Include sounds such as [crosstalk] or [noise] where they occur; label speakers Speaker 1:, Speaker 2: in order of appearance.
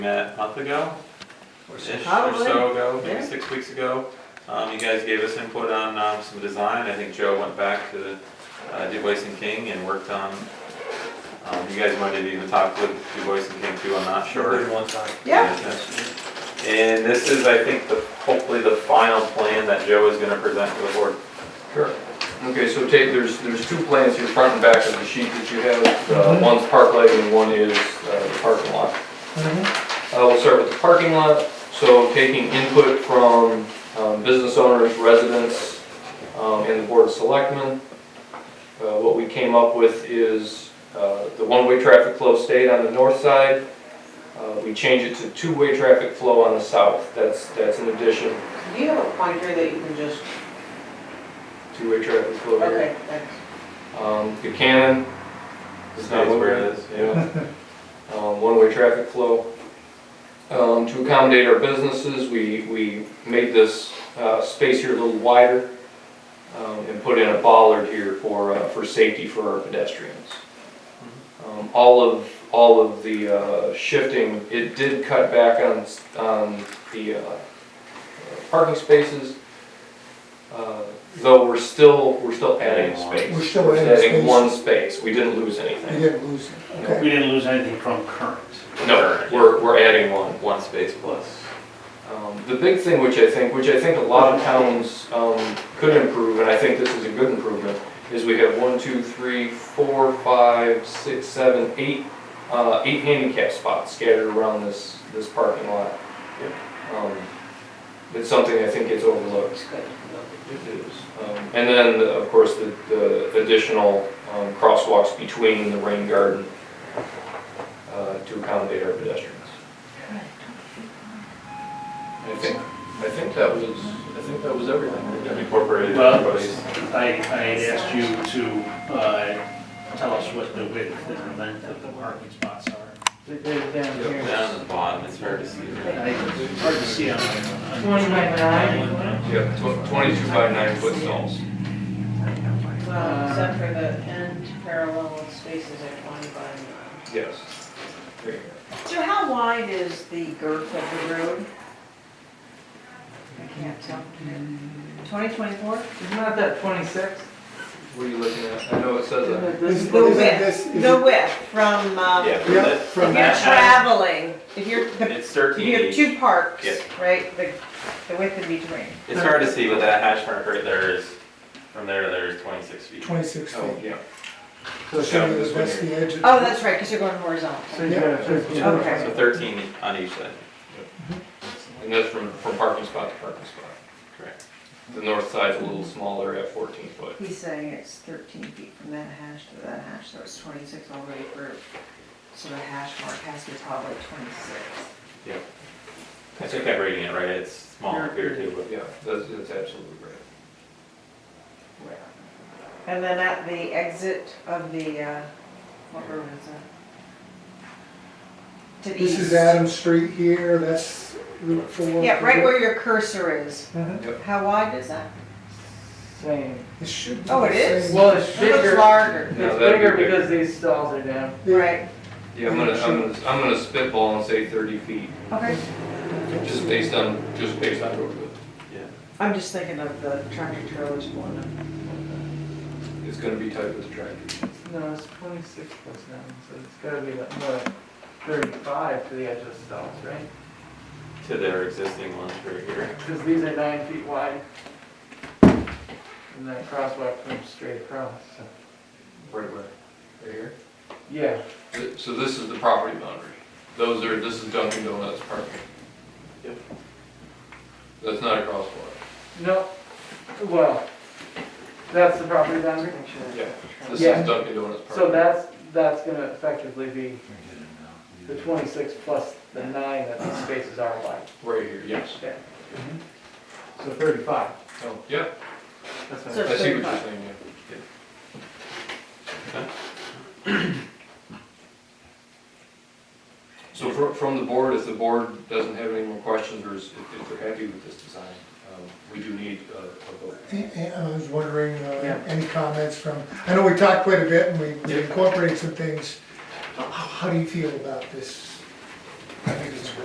Speaker 1: met a month ago,
Speaker 2: Or so.
Speaker 1: ish, or
Speaker 2: Probably.
Speaker 1: so ago, maybe
Speaker 2: yeah.
Speaker 1: six weeks ago. Um, you guys gave us input on, um, some design, I think Joe went back to, uh, Du Bois and King and worked on, um, you guys wanted to even talk with Du Bois and King too, I'm not sure.
Speaker 3: One time.
Speaker 2: Yeah,
Speaker 1: And this is, I think, the, hopefully the final plan that Joe is gonna present to the board.
Speaker 3: Sure. Okay, so Tate, there's, there's two plans here, front and back of the sheet that you have. Uh, One's park lighting and one is uh, the parking lot. Uh, We'll start with the parking lot. So taking input from um, business owners, residents, um, and the board of selectmen. Uh, What we came up with is uh, the one-way traffic flow stayed on the north side. Uh, We change it to two-way traffic flow on the south. That's, that's an addition,
Speaker 2: do you have a pointer that you can just,
Speaker 3: two-way traffic flow here.
Speaker 2: okay, thanks.
Speaker 3: Um, Buchanan is not
Speaker 1: States
Speaker 3: where it is, yeah. [laughs] Um, one-way traffic flow. Um, to accommodate our businesses, we, we made this, uh, space here a little wider, um, and put in a bollard here for, uh, for safety for our pedestrians. Um, all of, all of the, uh, shifting, it did cut back on, s- on the, uh, parking spaces. Uh, Though we're still, we're still adding space.
Speaker 4: We're still adding space.
Speaker 3: one space, we didn't lose
Speaker 4: You
Speaker 3: anything.
Speaker 4: didn't lose it, okay.
Speaker 5: We didn't lose anything from current.
Speaker 3: No, we're, we're adding one.
Speaker 1: One space plus.
Speaker 3: Um, The big thing, which I think, which I think a lot of towns um, could improve, and I think this is a good improvement, is we have one, two, three, four, five, six, seven, eight, uh, eight handicap spots scattered around this, this parking lot. Um, It's something I think gets overlooked.
Speaker 2: Looks good.
Speaker 3: Um, And then, of course, the- the additional um, crosswalks between the rain garden uh, to accommodate our pedestrians. I think, I think that was, I think that was everything.
Speaker 1: Incorporated
Speaker 5: Well-
Speaker 1: everybody's.
Speaker 5: I, I had asked you to, uh, tell us what the width and length of the parking spots are.
Speaker 2: They're down here.
Speaker 1: Down at the bottom, it's hard to see.
Speaker 5: I, it's hard to see on. on-
Speaker 2: Twenty by nine.
Speaker 3: Yep, tw- 22 by 9 foot stalls.
Speaker 2: Well, Uh, except for the end parallel spaces at twenty by nine.
Speaker 3: Yes.
Speaker 2: So how wide is the girth of the road? I can't tell. Twenty, twenty-four? Isn't that twenty-six?
Speaker 3: What are you looking at? I know it says that.
Speaker 4: Is-
Speaker 2: The
Speaker 4: isn't this-
Speaker 2: width,
Speaker 4: is
Speaker 2: the
Speaker 4: it-
Speaker 2: width from, um,
Speaker 1: Yeah,
Speaker 2: if
Speaker 1: from
Speaker 4: Yeah,
Speaker 1: that-
Speaker 4: from
Speaker 1: from
Speaker 2: you're
Speaker 1: that house,
Speaker 2: traveling, if you're, the
Speaker 1: it's thirteen
Speaker 2: You have two parks,
Speaker 1: Yeah.
Speaker 2: right, the, the width in between.
Speaker 1: It's hard to see, but that hash mark right there is, from there to there is twenty-six feet.
Speaker 4: Twenty-six
Speaker 3: Oh,
Speaker 4: feet.
Speaker 3: yeah.
Speaker 4: So
Speaker 1: yeah, this
Speaker 4: that's
Speaker 1: one
Speaker 4: the edge. of-
Speaker 2: Oh, that's right, because you're going horizontal.
Speaker 4: Yeah.
Speaker 2: Okay.
Speaker 1: So thirteen on each side,
Speaker 3: And that's from, from parking spot to parking spot.
Speaker 1: correct.
Speaker 3: The north side's a little smaller at 14 foot.
Speaker 2: He's saying it's thirteen feet from that hash to that hash, so it's twenty-six all the way through. So the hash mark has to be probably twenty-six.
Speaker 1: I think I'm reading it right, it's small here too, but.
Speaker 3: Yeah, that's, that's absolutely right.
Speaker 2: And then at the exit of the, uh, what road is that? To the east.
Speaker 4: This is Adam Street here, that's Route Four.
Speaker 2: Yeah, right where your cursor is.
Speaker 4: Mhm.
Speaker 2: How wide is that?
Speaker 6: Same.
Speaker 4: It should be.
Speaker 2: Oh, it
Speaker 4: the
Speaker 2: is?
Speaker 4: same.
Speaker 6: Well, it's
Speaker 2: It looks
Speaker 6: bigger,
Speaker 2: larger,
Speaker 3: No,
Speaker 6: it's
Speaker 3: that'd be
Speaker 6: bigger
Speaker 3: bigger.
Speaker 6: because these stalls are down.
Speaker 4: Yeah.
Speaker 2: right?
Speaker 3: Yeah, I'm gonna, I'm gonna, I'm gonna spitball and say thirty feet,
Speaker 2: Okay.
Speaker 3: just based on, just based on road width.
Speaker 2: I'm just thinking of the tractor trailers one.
Speaker 3: It's gonna be tight with the tractor.
Speaker 6: No, it's twenty-six plus nine, so it's gotta be like, more like thirty-five to the edge of the stalls, right?
Speaker 1: To their existing ones right here.
Speaker 6: Because these are nine feet wide. And that crosswalk comes straight across, so,
Speaker 3: Right where? Right here?
Speaker 6: yeah.
Speaker 3: Th- So this is the property boundary. Those are, this is Dunkin' Donuts parking.
Speaker 1: Yep.
Speaker 3: That's not a crosswalk.
Speaker 6: No, well, that's the property boundary.
Speaker 3: Yeah. This
Speaker 6: Yeah.
Speaker 3: is Dunkin' Donuts
Speaker 6: So
Speaker 3: parking.
Speaker 6: that's, that's gonna effectively be the twenty-six plus the nine that these spaces are wide.
Speaker 3: Right here, yes.
Speaker 6: Yeah. So thirty-five,
Speaker 3: Oh, yeah,
Speaker 6: that's what
Speaker 2: So-
Speaker 6: I'm
Speaker 3: I see what you're saying,
Speaker 2: Thirty-five.
Speaker 3: yeah. Yeah. So from, from the board, if the board doesn't have any more questions, or is- if if they're happy with this design, um, we do need uh, a vote.
Speaker 4: And- and I was wondering,
Speaker 6: Yeah.
Speaker 4: uh, any comments from, I know we talked quite a bit and we we
Speaker 3: Yeah.
Speaker 4: incorporated some things. How- How do you feel about this I think it's